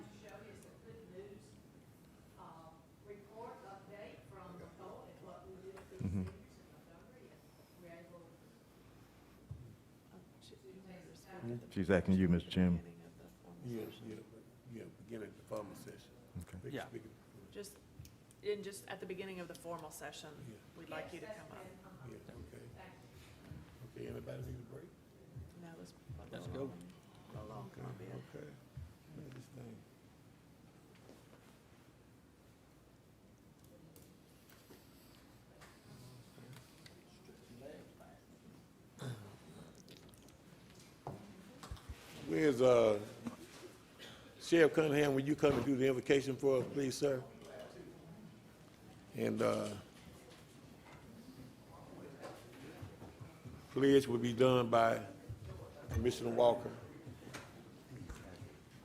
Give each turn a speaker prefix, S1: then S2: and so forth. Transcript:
S1: Um,
S2: Mm-hmm. She's asking you, Mr. Chairman.
S3: Yes, yeah, yeah, beginning of the formal session.
S2: Okay.
S3: Make-
S4: Yeah.
S3: make it-
S1: Just, in just at the beginning of the formal session,
S3: Yeah.
S1: we'd like you to come up.
S3: Yeah, okay. Okay, anybody need a break?
S1: No, let's.
S4: Let's go.
S1: A long
S3: Okay,
S1: comment.
S3: okay. Look at this thing. Where's, uh, Sheriff Cunningham, will you come and do the invocation for us, please, sir? And, uh, pledge will be done by Commissioner Walker.